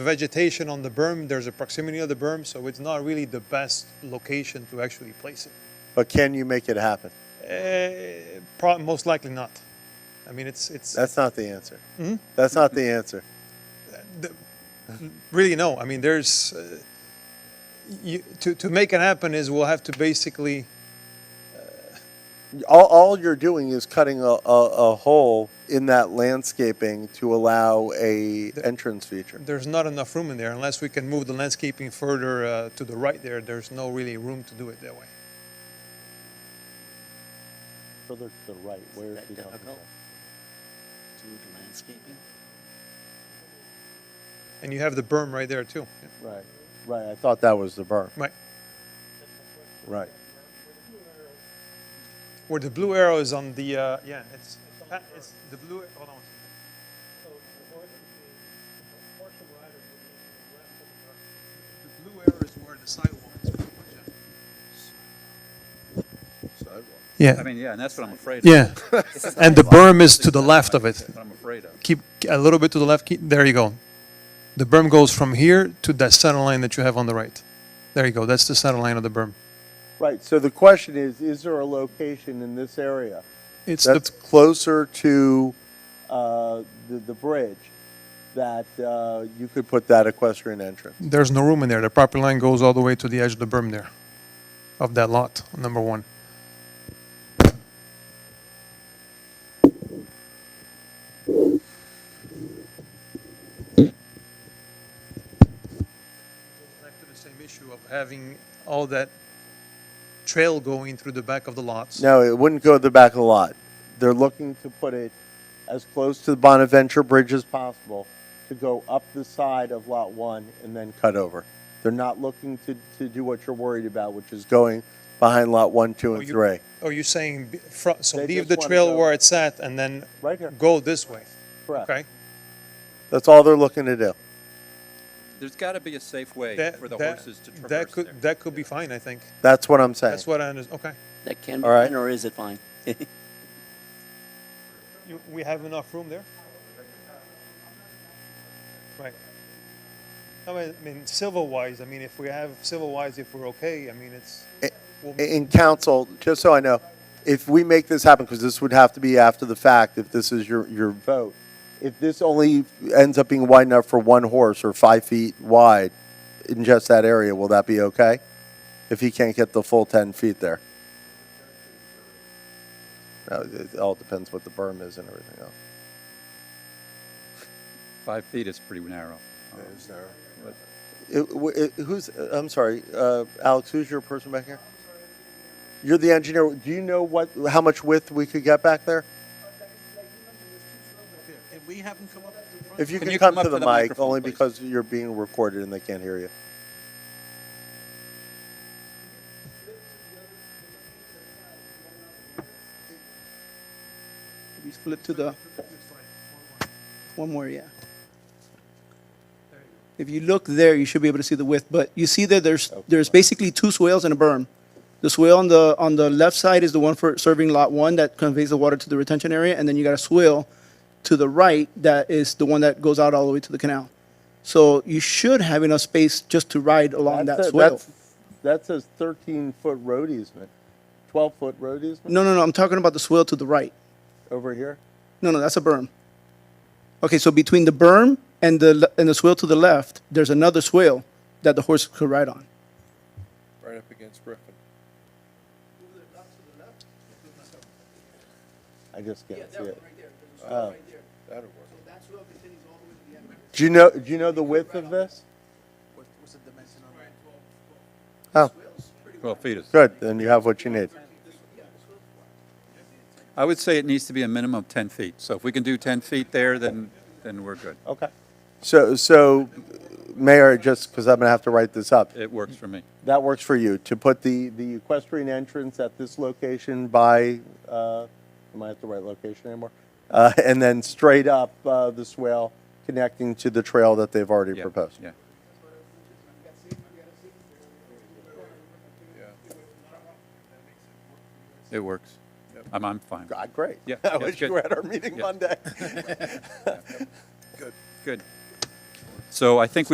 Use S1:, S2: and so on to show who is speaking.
S1: vegetation on the berm, there's a proximity of the berm, so it's not really the best location to actually place it.
S2: But can you make it happen?
S1: Eh, pro- most likely not. I mean, it's, it's,
S2: That's not the answer.
S3: Mm-hmm.
S2: That's not the answer.
S1: really no. I mean, there's, uh, you, to, to make it happen is we'll have to basically,
S2: All, all you're doing is cutting a, a, a hole in that landscaping to allow a entrance feature.
S1: there's not enough room in there unless we can move the landscaping further uh, to the right there. There's no really room to do it that way.
S4: Further to the right, where is
S3: that
S4: he talking
S3: difficult?
S4: about?
S3: to move the landscaping?
S1: And you have the berm right there too. Yeah.
S2: Right, right. I thought that was the berm.
S1: Right.
S2: Right.
S1: Where the blue arrow is on the, uh, yeah, it's, it's the blue, hold on. The blue arrow is where the sidewalk is. pretty much at.
S5: I
S1: Yeah,
S5: mean, yeah, and that's what I'm afraid of.
S1: yeah. And the berm is to the left of it.
S5: That's what I'm afraid of.
S1: Keep a little bit to the left, keep, there you go. The berm goes from here to that center line that you have on the right. There you go, that's the center line of the berm.
S2: Right. So the question is, is there a location in this area
S1: It's
S2: that's
S1: the,
S2: closer to uh, the, the bridge that uh, you could put that equestrian entrance?
S1: there's no room in there, the property line goes all the way to the edge of the berm there, of that lot, number one. back to the same issue of having all that trail going through the back of the lots.
S2: No, it wouldn't go to the back of the lot. They're looking to put it as close to the Bonaventure Bridge as possible to go up the side of Lot 1 and then cut over. They're not looking to, to do what you're worried about, which is going behind Lot 1, 2,
S1: Oh,
S2: and
S1: you-
S2: 3.
S1: Are you saying, be- fro- so
S2: They
S1: leave
S2: just
S1: the
S2: wanna
S1: trail
S2: go-
S1: where it's at and then
S2: Right here,
S1: go this way?
S2: correct.
S1: Okay?
S2: That's all they're looking to do.
S5: There's got to be a safe way
S1: That-
S5: for the
S1: that-
S5: horses to
S1: That
S5: traverse there.
S1: could, that could be fine, I think.
S2: That's what I'm saying.
S1: That's what I under, okay.
S3: That can be
S2: All right.
S3: done, or is it fine?
S1: You, we have enough room there? Right. I mean, I mean, civil-wise, I mean, if we have, civil-wise, if we're okay, I mean, it's, we'll-
S2: in council, just so I know, if we make this happen, because this would have to be after the fact, if this is your, your vote, if this only ends up being wide enough for one horse or five feet wide in just that area, will that be okay? If he can't get the full ten feet there? No, It it all depends what the berm is and everything else.
S5: Five feet is pretty narrow. Um, but-
S2: It- w- it- Who's, I'm sorry, uh, Alex, who's your person back here? You're the engineer. Do you know what, how much width we could get back there?
S3: If we haven't come up with the
S2: If you
S5: Can
S2: can,
S5: you
S2: come,
S5: come up
S2: to
S5: to
S2: the,
S5: the
S2: mic,
S5: microphone,
S2: only
S5: please?
S2: because you're being recorded and they can't hear you.
S6: We split to the, one more, yeah. If you look there, you should be able to see the width, but you see that there's, there's basically two swales and a berm. The swale on the, on the left side is the one for serving lot one that conveys the water to the retention area, and then you got a swale to the right that is the one that goes out all the way to the canal. So you should have enough space just to ride along that
S2: That's a-
S6: swale.
S2: that's- That says 13 foot road easement, 12 foot road easement
S6: No, no, no, I'm talking about the swale to the right.
S2: over here.
S6: No, no, that's a berm. Okay, so between the berm and the, le- and the swale to the left, there's another swale that the horse could ride on.
S7: right up against Griffin.
S2: I just can't see it. Oh.
S6: That'll work.
S7: That'll work.
S2: Do you know? Do you know the width of this? Oh,
S5: 12 feet is.
S2: good. Then you have what you need.
S5: I would say it needs to be a minimum of 10 feet. So if we can do 10 feet there, then, then we're good.
S2: Okay. So, so, Mayor, just because I'm gonna have to write this up,
S5: It works for me.
S2: that works for you to put the the equestrian entrance at this location by. Uh, am I at the right location anymore? Uh, and then straight up uh, the swale connecting to the trail that they've already
S5: Yeah,
S2: proposed.
S5: Yeah. It works. I'm, I'm fine.
S2: God, great.
S5: Yeah,
S2: I
S5: that's
S2: wish you
S5: good.
S2: were at our meeting
S5: Yeah.
S2: Monday.
S5: Good. So I think we.